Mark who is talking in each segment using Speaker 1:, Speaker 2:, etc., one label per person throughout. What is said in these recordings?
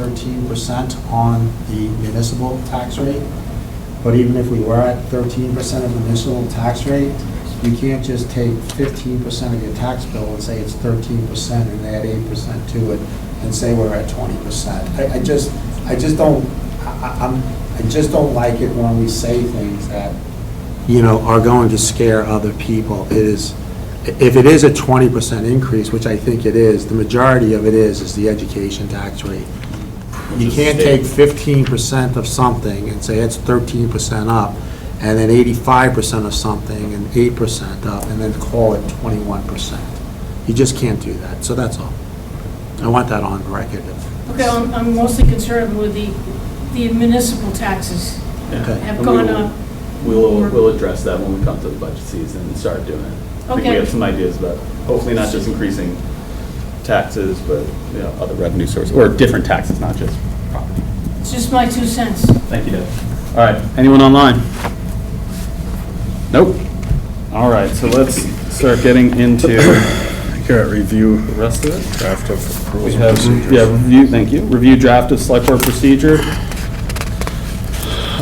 Speaker 1: thirteen percent on the municipal tax rate. But even if we were at thirteen percent of the municipal tax rate, you can't just take fifteen percent of your tax bill and say it's thirteen percent and add eight percent to it and say we're at twenty percent. I, I just, I just don't, I, I- I'm, I just don't like it when we say things that, you know, are going to scare other people. It is, if it is a twenty percent increase, which I think it is, the majority of it is, is the education tax rate. You can't take fifteen percent of something and say it's thirteen percent up, and then eighty-five percent of something and eight percent up, and then call it twenty-one percent. You just can't do that, so that's all. I want that on record.
Speaker 2: Okay, I'm I'm mostly concerned with the, the municipal taxes
Speaker 1: Okay.
Speaker 2: have
Speaker 3: And
Speaker 2: gone
Speaker 3: we will-
Speaker 2: up.
Speaker 3: We'll,
Speaker 2: We're-
Speaker 3: we'll address that when we come to the budget season and start doing it. I think we
Speaker 2: Okay.
Speaker 3: have some ideas about, hopefully not just increasing taxes, but, you know, other revenue sources, or different taxes, not just property.
Speaker 2: It's just my two cents.
Speaker 3: Thank you, Deb. All right, anyone online? Nope. All right, so let's start getting into
Speaker 4: Here at review
Speaker 3: the rest of it.
Speaker 4: draft of
Speaker 3: We
Speaker 4: rules and
Speaker 3: have,
Speaker 4: procedures.
Speaker 3: yeah, review, thank you, review draft of select board procedure.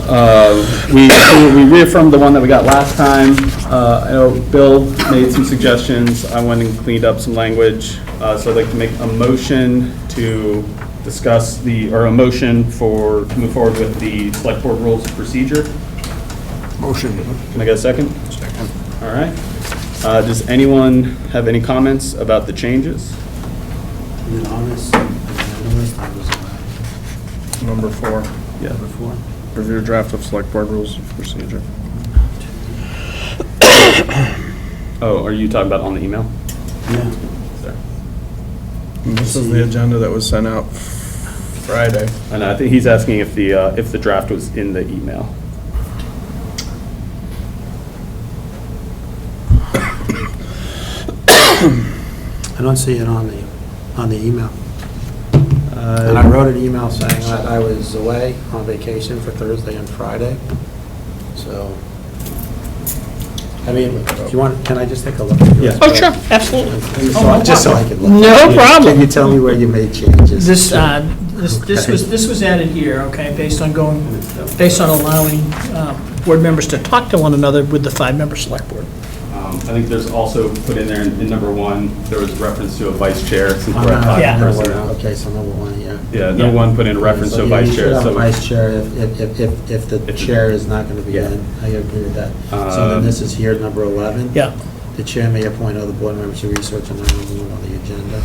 Speaker 3: Uh, We we reaffirmed the one that we got last time. Uh, I know Bill made some suggestions, I went and cleaned up some language, Uh, so I'd like to make a motion to discuss the, or a motion for, to move forward with the select board rules of procedure.
Speaker 4: Motion.
Speaker 3: Can I get a second? All right. Uh, Does anyone have any comments about the changes?
Speaker 1: And honest, and I know it's not just about
Speaker 4: Number four,
Speaker 3: Yeah.
Speaker 1: before.
Speaker 4: review draft of select board rules of procedure.
Speaker 3: Oh, are you talking about on the email?
Speaker 1: Yeah.
Speaker 3: Sorry.
Speaker 4: And This is the agenda that was sent out Friday.
Speaker 3: And I think he's asking if the, uh, if the draft was in the email.
Speaker 1: I don't see it on the, on the email.
Speaker 3: Uh,
Speaker 1: And I wrote an email saying that I was away on vacation for Thursday and Friday, so, I mean, do you want, can I just take a look? at yours?
Speaker 3: Yeah.
Speaker 5: Oh, sure, absolutely.
Speaker 1: So, Just so I can look.
Speaker 5: No problem.
Speaker 1: Can you tell me where you made changes?
Speaker 5: This, uh, this this was, this was added here, okay, based on going, based on allowing uh, board members to talk to one another with the five-member select board.
Speaker 3: Um, I think there's also put in there, in in number one, there was reference to a vice chair, since
Speaker 1: I'm
Speaker 3: we're at
Speaker 1: not-
Speaker 3: five
Speaker 5: Uh-huh. Yeah.
Speaker 1: no,
Speaker 3: personnel.
Speaker 1: Okay, so number one, yeah.
Speaker 3: Yeah, no
Speaker 5: Yeah.
Speaker 3: one put in reference to
Speaker 1: So
Speaker 3: a vice
Speaker 1: You
Speaker 3: chair,
Speaker 1: should have a
Speaker 3: so,
Speaker 1: vice chair if, if- if, if, if the
Speaker 3: If the-
Speaker 1: chair is not going to be
Speaker 3: Yeah.
Speaker 1: in. I agree with that. So
Speaker 3: Um,
Speaker 1: then this is here, number 11.
Speaker 5: Yeah,
Speaker 1: The chair may appoint other board members to research an item on the agenda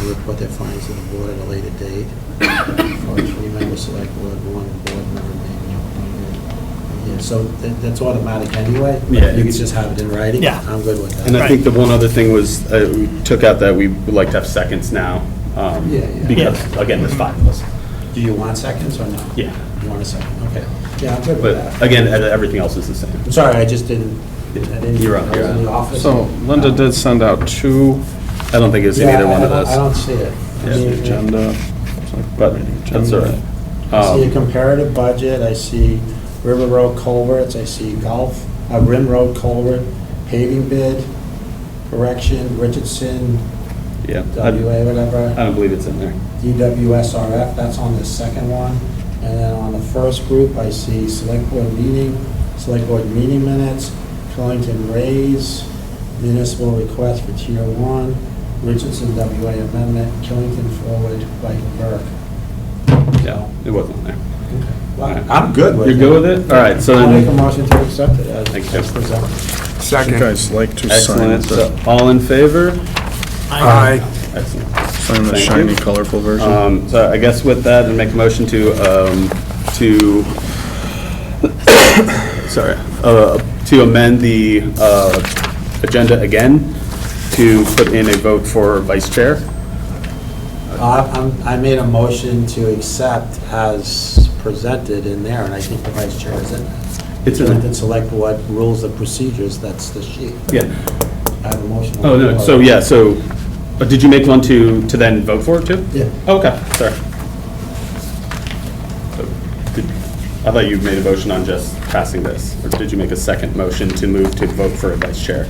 Speaker 1: and report their findings to the board at a later date. For a three-member select board, one board member may be appointed. Yeah, so that- that's automatic anyway.
Speaker 3: Yeah,
Speaker 1: You can
Speaker 3: it's-
Speaker 1: just have it in writing.
Speaker 5: Yeah.
Speaker 1: I'm good with
Speaker 3: and
Speaker 1: that.
Speaker 3: I think the one other thing was, uh, we took out that we would like to have seconds now. um,
Speaker 1: Yeah, yeah.
Speaker 3: Because, again, there's five of us.
Speaker 1: Do you want seconds or no?
Speaker 3: Yeah.
Speaker 1: You want a second? Okay. Yeah, I'm good with
Speaker 3: But
Speaker 1: that.
Speaker 3: again, e- everything else is the same.
Speaker 1: I'm sorry, I just didn't, I didn't.
Speaker 3: You're on,
Speaker 1: I was
Speaker 3: you're
Speaker 1: in the
Speaker 3: on.
Speaker 1: office.
Speaker 4: So Linda did send out two
Speaker 3: I don't think it's in
Speaker 1: Yeah,
Speaker 3: either
Speaker 1: I
Speaker 3: one of
Speaker 1: don't- I
Speaker 3: those,
Speaker 1: don't see it. I
Speaker 3: Yeah.
Speaker 1: mean,
Speaker 4: agenda.
Speaker 3: but that's all right.
Speaker 1: I see a
Speaker 3: Um,
Speaker 1: comparative budget, I see River Road culverts, I see golf, uh, Rim Road culvert, paving bid, correction, Richardson,
Speaker 3: Yeah, I
Speaker 1: WA,
Speaker 3: I
Speaker 1: whatever,
Speaker 3: don't believe it's in there.
Speaker 1: DWSRF, that's on the second one. And then on the first group, I see select board meeting, select board meeting minutes, Killington raise, municipal request for tier one, Richardson WA amendment, Killington forward, Viking Burke.
Speaker 3: Yeah, it wasn't on there.
Speaker 1: Well, I'm good with
Speaker 3: You're
Speaker 1: it.
Speaker 3: good with it? All right, so
Speaker 1: I'll
Speaker 3: then-
Speaker 1: make a motion to accept it as
Speaker 3: Thank you.
Speaker 1: as presented.
Speaker 4: Would you guys like to sign
Speaker 3: Excellent. So,
Speaker 4: the,
Speaker 3: All in favor?
Speaker 5: I
Speaker 3: Excellent.
Speaker 4: sign the
Speaker 3: Thank
Speaker 4: shiny
Speaker 3: you.
Speaker 4: colorful version?
Speaker 3: Um, So I guess with that, and make a motion to, um, to, sorry, uh, to amend the uh, agenda again, to put in a vote for vice chair.
Speaker 1: Uh, I'm- I made a motion to accept as presented in there, and I think the vice chair is in it.
Speaker 3: It's in there.
Speaker 1: Killington Select Board Rules of Procedures, that's the sheet.
Speaker 3: Yeah.
Speaker 1: I have a motion. on
Speaker 3: Oh,
Speaker 1: the
Speaker 3: no,
Speaker 1: floor.
Speaker 3: so, yeah, so, uh, did you make one to, to then vote for it too? Oh,
Speaker 1: Yeah.
Speaker 3: Okay, sorry. So, did- I thought you made a motion on just passing this, or did you make a second motion to move to vote for a vice chair?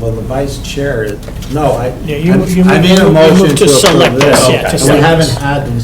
Speaker 1: well, the vice chair, is- no, I, I
Speaker 5: Yeah, you- you
Speaker 1: I made a
Speaker 5: moved- you
Speaker 1: motion
Speaker 5: moved
Speaker 1: to
Speaker 5: to select
Speaker 1: approve
Speaker 5: us,
Speaker 1: this.
Speaker 5: yeah, to
Speaker 1: And
Speaker 5: select
Speaker 1: we haven't
Speaker 5: us.
Speaker 1: had the